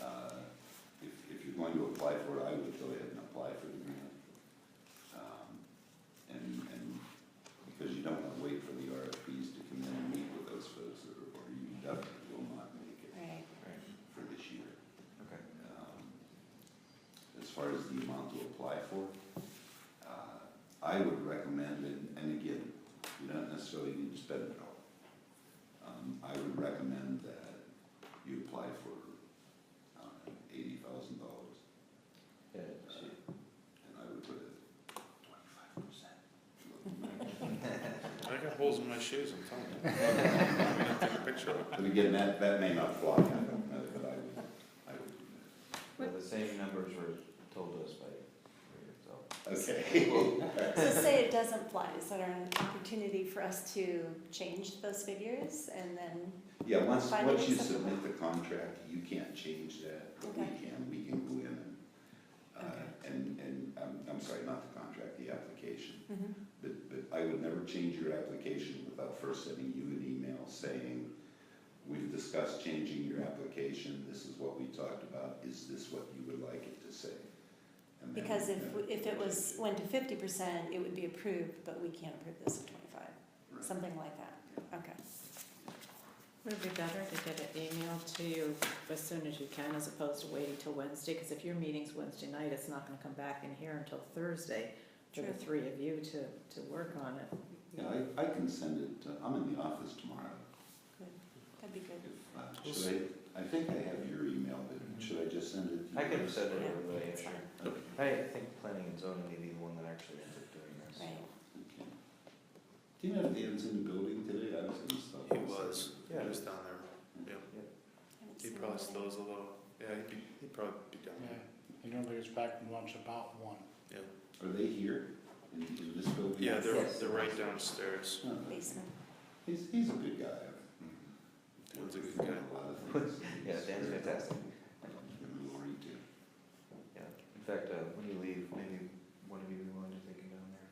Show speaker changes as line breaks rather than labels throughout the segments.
Uh, apply for it, I would go ahead and apply for the grant. Um, And, and because you don't want to wait for the RFPs to come in and meet with those folks, or or you definitely will not make it
Right,
Right,
for this year.
okay.
Um, As far as the amount to apply for, uh, I would recommend, and and again, you don't necessarily need to spend it all. Um, I would recommend that you apply for um, eighty thousand dollars. Uh,
Yeah, she-
And I would put a twenty-five percent.
I got holes in my shoes, I'm telling you. I'm gonna take a picture of it.
But again, that, that may not fly, I don't know, but I would, I would. do
Well, the same numbers were told us by Rita, so.
that. Okay.
so say it doesn't fly, is that an opportunity for us to change those figures and then,
Yeah, once,
Finding
once you
acceptable.
submit the contract, you can't change that, but we
Okay.
can, we can go in and, uh,
Okay.
and, and, I'm, I'm sorry, not the contract, the application.
Mhm.
But, but I would never change your application without first sending you an email saying, we've discussed changing your application, this is what we talked about, is this what you would like it to say? And then-
because if, if it was, went to fifty percent, it would be approved, but we can't approve this at twenty-five,
Right.
something like that, okay.
Would it be better to get an email to you as soon as you can as opposed to waiting till Wednesday? Because if your meeting's Wednesday night, it's not gonna come back in here until Thursday for the
True.
three of you to, to work on it.
Yeah, I, I can send it, to- I'm in the office tomorrow.
Good, that'd be good.
If, uh, Should I, I think I have your email, but should I just send it to you?
I could have said it
Yeah,
everybody, I'm
that's
sure.
fine.
Okay.
I think planning and zoning may be the one that actually ends up doing this.
Right,
Okay. Do you know if Dan's in the building today? I was in stuff.
He was, he
Yeah.
was down there, yeah.
haven't
He
seen
probably
it.
still is a little, yeah, he'd be, he'd probably be down
Yeah,
there,
he normally gets back from lunch about one.
yeah.
Are they here in, in this building?
Yeah, they're,
Yes.
they're right downstairs.
No, but
Basement,
He's, he's a good guy.
Mm-hmm. Dan's a good guy.
A lot of things.
Yeah, Dan's fantastic.
And Lori too.
Yeah, in fact, uh, when you leave, maybe one of you be willing to take it down there.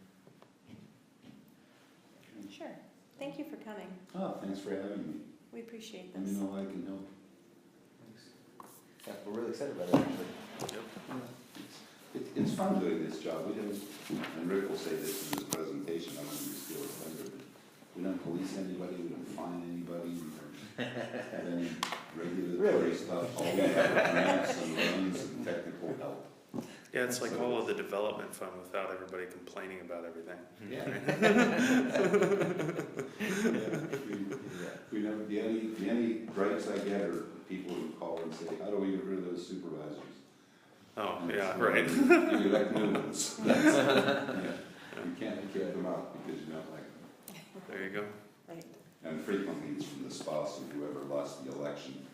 sure, thank you for coming,
Oh, thanks for having me.
we appreciate
Let me
this.
know I can help.
Thanks. Yeah, we're really excited about it, actually.
Yep.
It, it's fun doing this job, we don't, and Rick will say this in his presentation, I'm gonna steal his thunder, but we don't police anybody, we don't fine anybody, we don't have any regulatory
Really?
stuff, all we have are grants and loans and technical help.
Yeah, it's like all of the development fund without everybody complaining about everything.
Yeah. We-
Yeah.
We know, the only, the only gripes I get are people who call and say, how do we get rid of those supervisors?
Oh,
And it's
yeah,
like,
right.
You elect new ones. That's- yeah. You can't kick them out because you don't like them.
There you go.
Right,
And frequently it's from the spouse of whoever lost the election.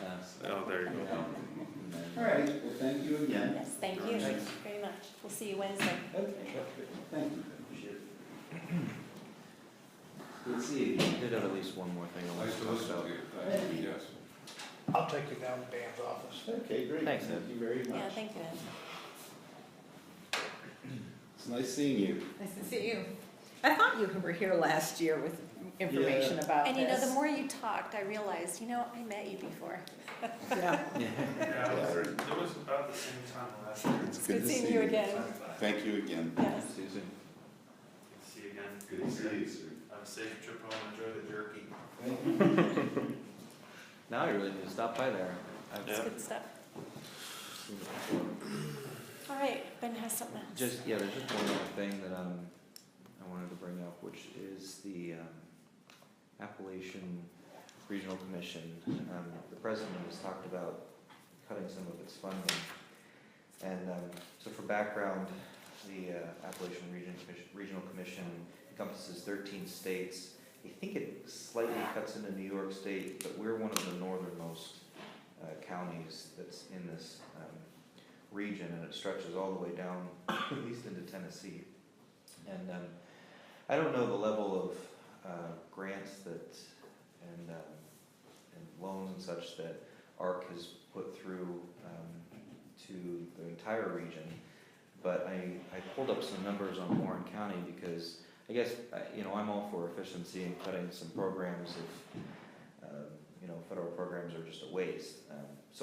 Uh,
Oh, there you go.
yeah.
All
And then-
right, well, thank you again.
yes, thank you
Thanks.
very much, we'll see you Wednesday.
Okay, thank you.
Shit. Let's see, we did have at least one more thing I wanted to talk about.
Yes.
I'll take you down to Dan's office.
Okay, great.
Thanks, Ed.
Thank you very
Yeah,
much.
thank you, Ed.
It's nice seeing you.
Nice to see you. I thought you were here last year with
information
about
And you know, the more you talked, I realized, you know, I met you before.
Yeah, it
it was about the same time last year.
It's good seeing you again.
Thank you again.
Yes,
Susan.
See you again.
Good to see you, sir.
Have a safe trip home, enjoy the jerky.
Now I really need to stop by there. I've
it's
Yeah.
good stuff.
seen it before.
All right, Ben has something else.
Just, yeah, there's just one other thing that um, I wanted to bring up, which is the um, Appalachian Regional Commission. Um, The president has talked about cutting some of its funding. And um, so for background, the uh, Appalachian Region Commission- Regional Commission encompasses 13 states. I think it slightly cuts into New York State, but we're one of the northernmost uh, counties that's in this um, region, and it stretches all the way down, at least into Tennessee. And um, I don't know the level of uh, grants that, and, um, and loans and such that ARC has put through um, to the entire region, but I, I pulled up some numbers on Warren County because I guess, I- you know, I'm all for efficiency and cutting some programs if, um, you know, federal programs are just a waste. Um, So